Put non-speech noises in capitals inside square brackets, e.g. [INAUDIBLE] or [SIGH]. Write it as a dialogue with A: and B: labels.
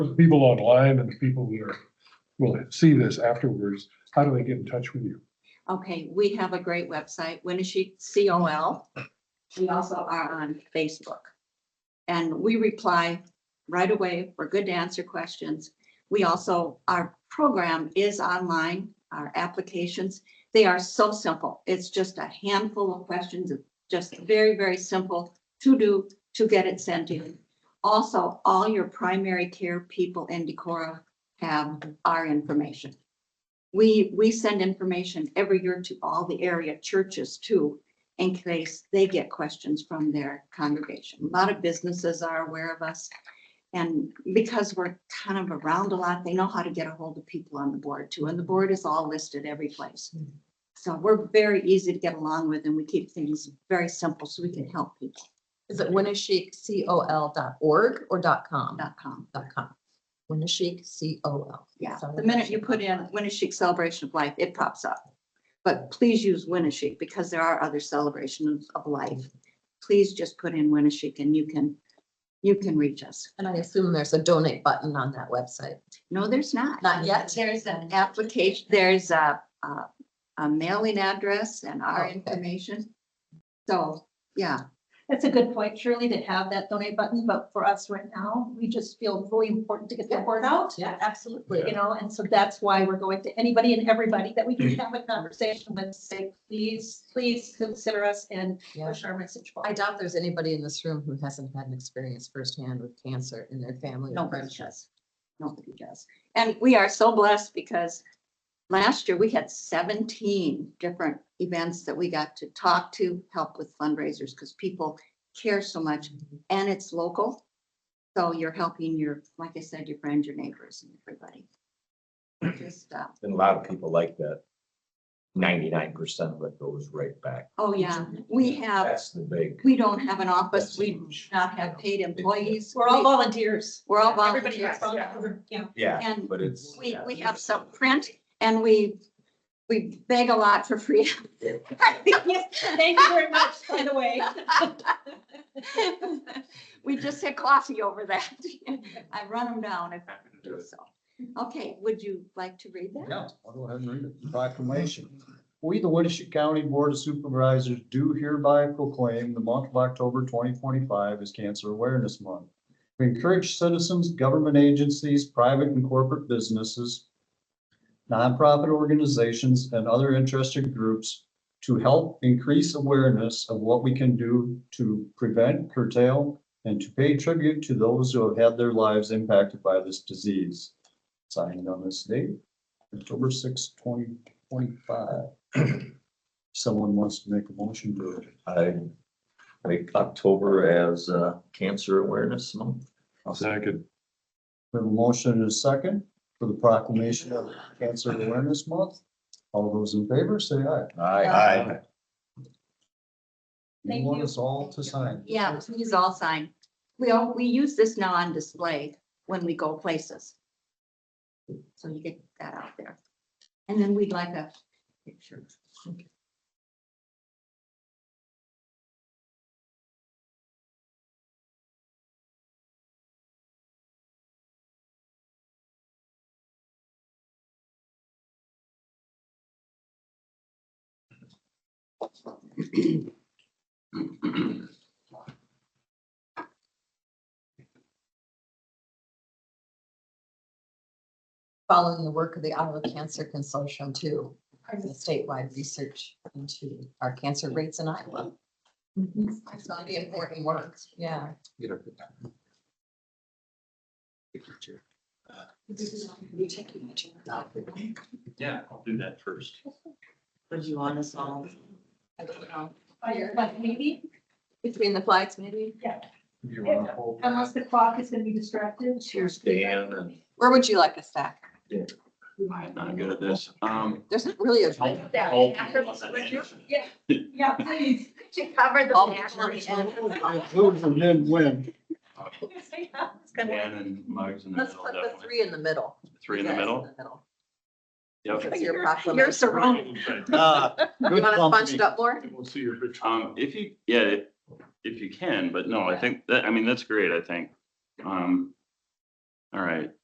A: for the people online and the people who are, will see this afterwards, how do they get in touch with you?
B: Okay, we have a great website, Winnebago C O L. We also are on Facebook. And we reply right away. We're good to answer questions. We also, our program is online, our applications. They are so simple. It's just a handful of questions, just very, very simple to do, to get it sent in. Also, all your primary care people in Decorah have our information. We, we send information every year to all the area churches too, in case they get questions from their congregation. A lot of businesses are aware of us. And because we're kind of around a lot, they know how to get a hold of people on the board too, and the board is all listed every place. So we're very easy to get along with and we keep things very simple so we can help people,
C: Is it Winneshiek, C O L dot org or dot com?
B: dot com.
C: Dot com. Winneshiek, C O L.
B: Yeah,
C: Sounds
B: the
C: like
B: minute
C: that
B: you
C: should
B: put
C: pop
B: in
C: up.
B: Winnebago Celebration of Life, it pops up. But please use Winnebago because there are other celebrations of life. Please just put in Winnebago and you can, you can reach us.
C: And I assume there's a donate button on that website.
B: No, there's not.
C: Not yet?
B: There's an application, there's a, a- a mailing address and our
C: Okay.
B: information. So, yeah,
D: That's a good point, Shirley, to have that donate button, but for us right now, we just feel really important to get the
C: Yeah.
D: word out.
C: Yeah.
D: Absolutely, you know, and so that's why we're going to anybody and everybody that we
E: [CLEARS THROAT]
D: can have a conversation with, say, please, please consider us and
C: Yeah.
D: push our message.
C: I
D: forward.
C: doubt there's anybody in this room who hasn't had an experience firsthand with cancer in their family. or
B: nobody
C: friends.
B: does. Nobody does. And we are so blessed because last year we had seventeen different events that we got to talk to, help with fundraisers, because people care so much and it's local. So you're helping your, like I said, your friends, your neighbors and everybody. Just, uh,
E: And a lot of people like that. Ninety-nine percent of it goes right back.
B: oh yeah, we have,
E: That's the big.
B: we don't have an office.
E: That's
B: We do
E: huge.
B: not have paid employees.
D: We're all volunteers.
B: We're all
D: Everybody
B: volunteers.
D: that's on the board, Yeah.
E: Yeah,
B: And
E: but it's.
B: we, we have some print and we, we beg a lot for free.
D: Thank you very much, by the way.
B: We just had coffee over that. I run them down if I do so. Okay, would you like to read that?
F: Yeah, I'll go ahead and read it. Proclamation. We, the Winnebago County Board of Supervisors, do hereby proclaim the month of October twenty twenty-five as Cancer Awareness Month. We encourage citizens, government agencies, private and corporate businesses, nonprofit organizations, and other interested groups to help increase awareness of what we can do to prevent, curtail, and to pay tribute to those who have had their lives impacted by this disease. Signed on this date, October sixth, twenty twenty-five. [CLEARS THROAT] Someone wants to make a motion to it.
E: I make October as uh, Cancer Awareness Month.
A: Second.
F: We have a motion and a second for the proclamation of Cancer Awareness Month. All those in favor, say aye.
E: Aye.
D: Thank
F: You want
D: you.
F: us all to sign.
B: Yeah, please all sign. We all, we use this now on display when we go places. So you get that out there. And then we'd like a picture.
C: Following the work of the Iowa Cancer Consortium too, the statewide research into our cancer rates in Iowa. It's gonna be important work, yeah.
G: Yeah, I'll do that first.
C: Would you want us all? I don't know.
D: Fire, But maybe,
C: Between the flags, maybe?
E: You
D: wanna unless the clock is gonna be distracted.
E: Here's Dan and
C: Where would you like us back?
G: I'm not good at this. Um.
C: There's not really a.
G: I'll- I'll- [LAUGHS] I'll-
D: Yeah, yeah, please.
B: To cover
C: All people on the end. [LAUGHS]
D: [LAUGHS]
G: Dan and Muggs in the
C: Let's
G: middle,
C: put the
G: definitely.
C: three in the middle.
G: Three in the
C: Yes,
G: middle. Yep.
C: That's your
B: You're
C: proclamation.
B: surrounded.
F: Ah,
C: You
F: good
C: want us bunched
F: company.
C: up more?
A: We'll see your picture.
G: Um, if you, yeah, if- if you can, but no, I think that, I mean, that's great, I think. Um, All right,